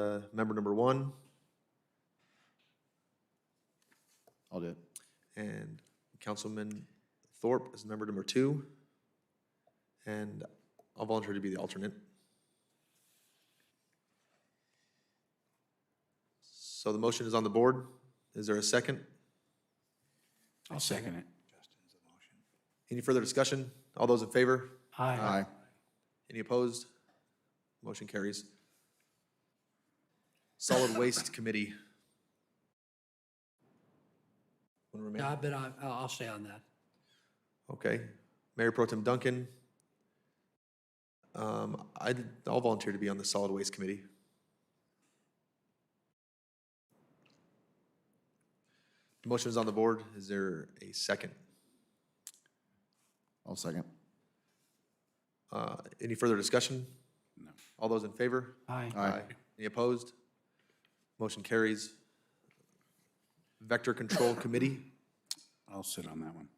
Uh, member number one I'll do it. and Councilman Thorpe is member number two. And I'll volunteer to be the alternate. So the motion is on the board. Is there a second? I'll second it. Any further discussion? All those in favor? Aye. Any opposed? Motion carries. Solid Waste Committee. Wanna remain? I bet I, I'll I'll stay on that. Okay. Mayor Pro Tem Duncan. Um, I, I'll volunteer to be on the Solid Waste Committee. Motion is on the board. Is there a second? I'll second. Uh, Any further discussion? No. All those in favor? Aye. Aye. Any opposed? Motion carries. Vector Control Committee, I'll sit on that one.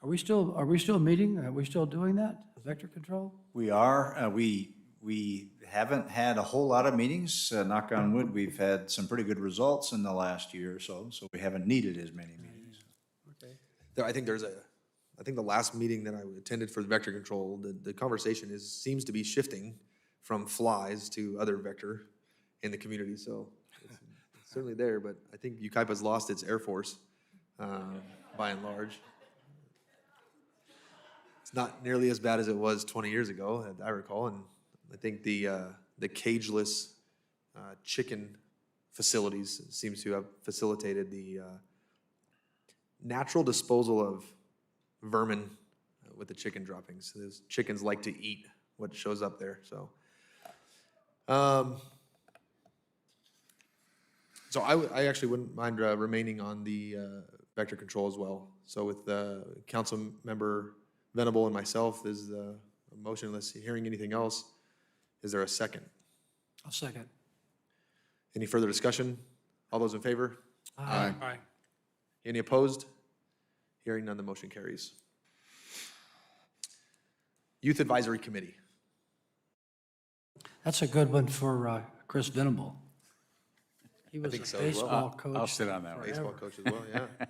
Are we still, are we still meeting? Are we still doing that? Vector control? We are, uh, we, we haven't had a whole lot of meetings, uh, knock on wood. We've had some pretty good results in the last year or so, so we haven't needed as many meetings. There- I think there's a, I think the last meeting that I attended for the vector control, the, the conversation is, seems to be shifting from flies to other vector in the community, so it's- it's certainly there, but I think Ukaipa's lost its air force, uh, by and large. It's not nearly as bad as it was twenty years ago, that I recall, and I think the, uh, the cageless, uh, chicken facilities seems to have facilitated the, uh, natural disposal of vermin uh, with the chicken droppings. Those chickens like to eat what shows up there, so. Um, so I, w- I actually wouldn't mind uh, remaining on the uh, vector control as well. So with the council member Venable and myself, is the motion unless hearing anything else. Is there a second? I'll second. Any further discussion? All those in favor? Aye. Aye. Any opposed? Hearing none, the motion carries. Youth Advisory Committee. That's a good one for uh, Chris Venable. He was think so a as well. baseball I'll coach. sit on that one. Baseball coach as well, yeah.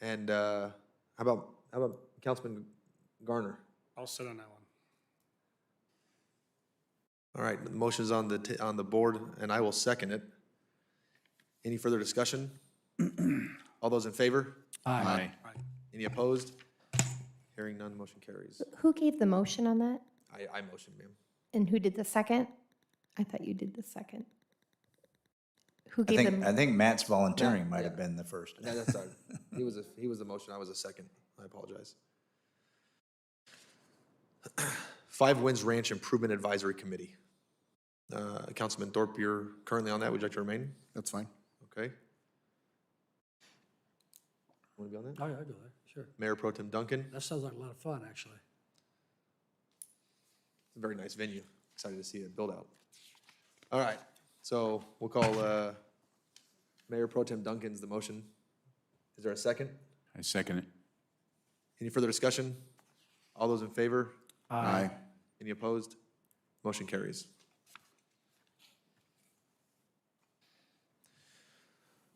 And uh, how about, how about Councilman Garner? I'll sit on that one. All right, the motion's on the, ta- on the board, and I will second it. Any further discussion? All those in favor? Aye. Any opposed? Hearing none, motion carries. Who gave the motion on that? I, I motion, ma'am. And who did the second? I thought you did the second. Who I gave think, I them? think Matt's volunteering might have been the first. No, that's sorry. He was a, he was the motion, I was a second. I apologize. Five Winds Ranch Improvement Advisory Committee. Uh, Councilman Thorpe, you're currently on that. Would you like to remain? That's fine. Okay. Want to be on that? Oh, yeah, I do it, sure. Mayor Pro Tem Duncan, That sounds like a lot of fun, actually. It's a very nice venue. Excited to see it build out. All right, so we'll call uh, Mayor Pro Tem Duncan's the motion. Is there a second? I second it. Any further discussion? All those in favor? Aye. Any opposed? Motion carries.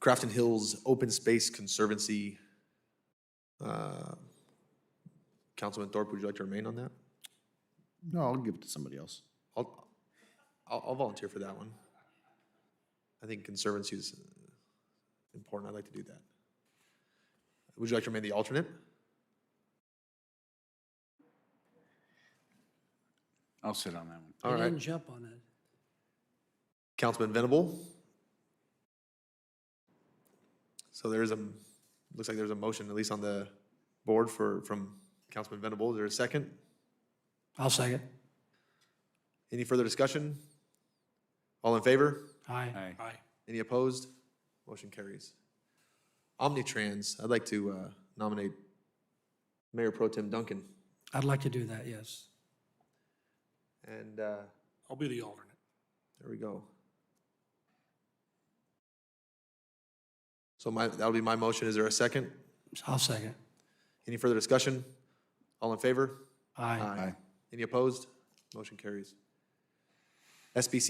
Crafton Hills Open Space Conservancy. uh, Councilman Thorpe, would you like to remain on that? No, I'll give it to somebody else. I'll, I'll I'll volunteer for that one. I think conservancy is uh, important. I'd like to do that. Would you like to remain the alternate? I'll sit on that one. All He right. didn't jump on it. Councilman Venable. So there is a, looks like there's a motion, at least on the board for, from Councilman Venable. Is there a second? I'll second. Any further discussion? All in favor? Aye. Aye. Any opposed? Motion carries. Omnitrans, I'd like to uh, nominate Mayor Pro Tem Duncan. I'd like to do that, yes. And uh, I'll be the alternate. there we go. So my, that'll be my motion. Is there a second? I'll second. Any further discussion? All in favor? Aye. Any opposed? Motion carries. SBC